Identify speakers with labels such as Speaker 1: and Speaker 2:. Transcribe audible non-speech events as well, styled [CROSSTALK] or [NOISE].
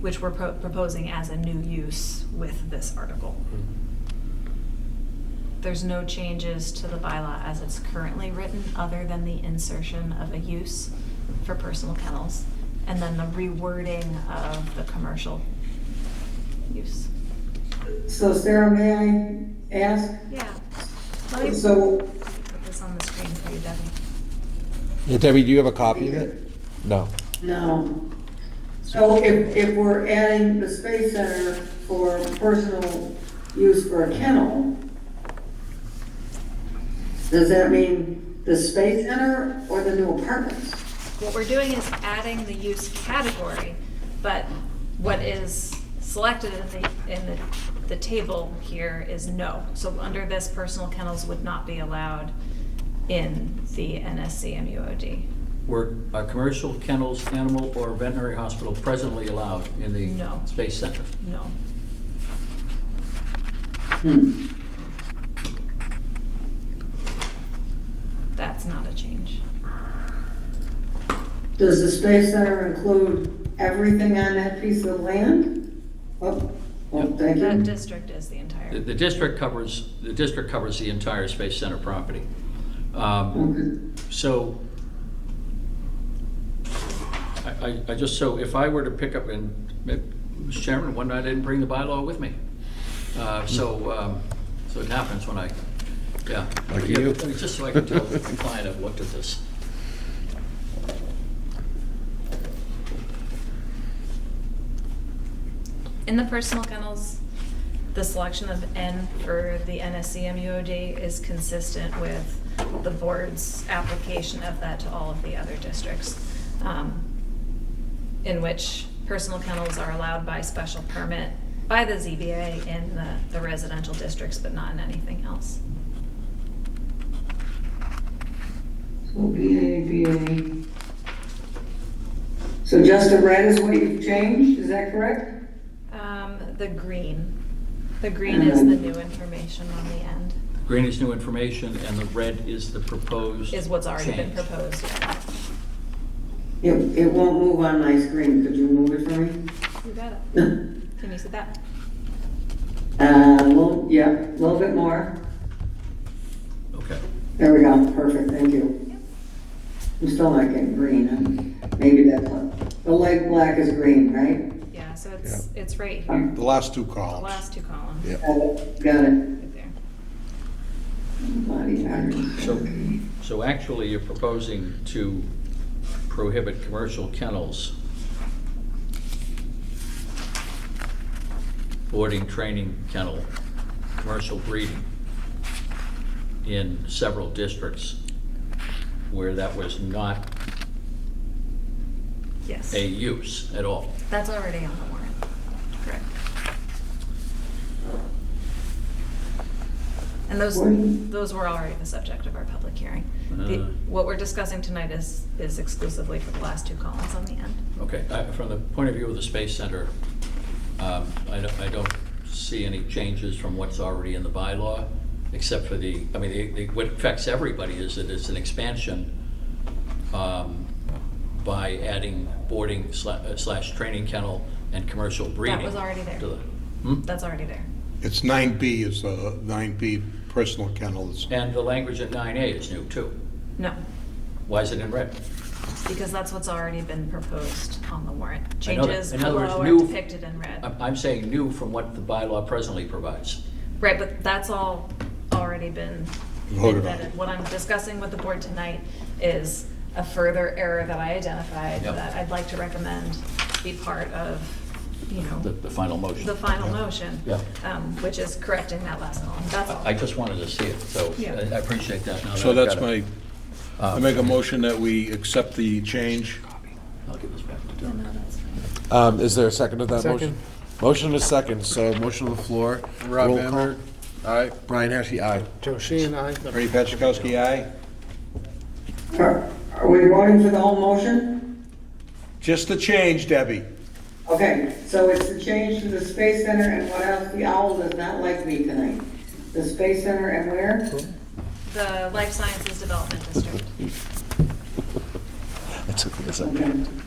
Speaker 1: which we're pro- proposing as a new use with this article.
Speaker 2: Mm-hmm.
Speaker 1: There's no changes to the bylaw as it's currently written, other than the insertion of a use for personal kennels, and then the rewording of the commercial use.
Speaker 3: So Sarah, may I ask?
Speaker 1: Yeah. Let me
Speaker 3: So,
Speaker 1: put this on the screen for you, Debbie.
Speaker 4: Yeah, Debbie, do you have a copy of it? No.
Speaker 3: no. So if, if we're adding the Space Center for personal use for a kennel, does that mean the Space Center or the new apartments?
Speaker 1: What we're doing is adding the use category, but what is selected in the, in the, the table here is no. So under this, personal kennels would not be allowed in the NSC MUOD.
Speaker 5: Were uh, commercial kennels, animal, or veterinary hospital presently allowed in
Speaker 1: No.
Speaker 5: the Space Center?
Speaker 1: No.
Speaker 3: Hmm.
Speaker 1: That's not a change.
Speaker 3: Does the Space Center include everything on that piece of land? Oh, well, thank
Speaker 1: That
Speaker 3: you.
Speaker 1: district is the
Speaker 5: The
Speaker 1: entire,
Speaker 5: the district covers, the district covers the entire Space Center property. Um,
Speaker 3: Okay.
Speaker 5: So, I, I- I just, so if I were to pick up, and, eh, Mr. Chairman, one night I didn't bring the bylaw with me. Uh, So, um, so it happens when I, yeah.
Speaker 4: Lucky you.
Speaker 5: Yeah, Just so I can tell the client I've looked at this.
Speaker 1: in the personal kennels, the selection of N for the NSC MUOD is consistent with the board's application of that to all of the other districts, um, in which personal kennels are allowed by special permit by the ZBA in the- the residential districts, but not in anything else.
Speaker 3: So BA, BA. So just the red is what you've changed, is that correct?
Speaker 1: Um, The green, the green is the new information on the end,
Speaker 5: Green is new information, and the red is the proposed
Speaker 1: is what's already been
Speaker 5: change.
Speaker 1: proposed.
Speaker 3: It, it won't move on my screen, could you move it for me?
Speaker 1: You got it. Can you see that?
Speaker 3: [LAUGHS] Uh, little, yeah, a little bit more.
Speaker 5: Okay.
Speaker 3: There we go, perfect, thank you. I'm still not getting green, huh? maybe that's, what- the light black is green, right?
Speaker 1: Yeah, so it's, it's right here.
Speaker 3: Um,
Speaker 4: The last two
Speaker 1: The
Speaker 4: columns.
Speaker 1: last two columns.
Speaker 4: Yeah.
Speaker 3: Got it, got it.
Speaker 1: Right there.
Speaker 3: Body iron.
Speaker 5: So, so actually, you're proposing to prohibit commercial kennels, boarding, training kennel, commercial breeding in several districts where that was not
Speaker 1: Yes.
Speaker 5: a use at all.
Speaker 1: That's already on the warrant. Correct. And those,
Speaker 3: Warning.
Speaker 1: those were already the subject of our public hearing. The-
Speaker 5: Uh.
Speaker 1: What we're discussing tonight is, is exclusively for the last two columns on the end.
Speaker 5: Okay, I- from the point of view of the Space Center, um, I don't, I don't see any changes from what's already in the bylaw, except for the, I mean, the- the- what affects everybody is that it's an expansion um, by adding boarding sla- uh, slash training kennel and commercial breeding.
Speaker 1: was already there.
Speaker 5: to the- Hmm?
Speaker 1: That's already there.
Speaker 2: It's nine B is, uh, nine B personal kennels.
Speaker 5: And the language at nine A is new too.
Speaker 1: No,
Speaker 5: Why is it in red?
Speaker 1: because that's what's already been proposed on the warrant.
Speaker 5: I know that-
Speaker 1: Changes
Speaker 5: in other words,
Speaker 1: below are
Speaker 5: new-
Speaker 1: depicted in red.
Speaker 5: I'm, I'm saying new from what the bylaw presently provides.
Speaker 1: Right, but that's all already been
Speaker 2: Voted on.
Speaker 1: vetted. What I'm discussing with the board tonight is a further error that I identified
Speaker 5: Yep.
Speaker 1: that I'd like to recommend be part of, you
Speaker 5: The,
Speaker 1: know,
Speaker 5: the final motion.
Speaker 1: the final motion.
Speaker 5: Yeah.
Speaker 1: um, Which is correcting that last column, that's all.
Speaker 5: I I just wanted to see it, so I
Speaker 1: Yeah.
Speaker 5: I appreciate that. now
Speaker 2: So
Speaker 5: that I've
Speaker 2: that's
Speaker 5: got it.
Speaker 2: my, I make a motion that we accept the change.
Speaker 5: I'll give this back to
Speaker 1: No,
Speaker 5: Doug.
Speaker 1: no, that's fine.
Speaker 4: Um, is there a second to that motion?
Speaker 6: Second.
Speaker 4: Motion is second, so motion on the floor.
Speaker 6: Rob
Speaker 4: Roll call.
Speaker 6: Emmer,
Speaker 4: Aye. Brian Heskey, aye.
Speaker 6: Joe Sheehan, aye.
Speaker 2: Ernie Petchakowski, aye?
Speaker 3: Are are we voting for the whole motion?
Speaker 2: Just the change, Debbie.
Speaker 3: Okay, so it's the change to the Space Center and what else? The owl does not like me tonight. The Space Center and where?
Speaker 1: The life sciences development district.
Speaker 4: It took me a second.
Speaker 3: Okay.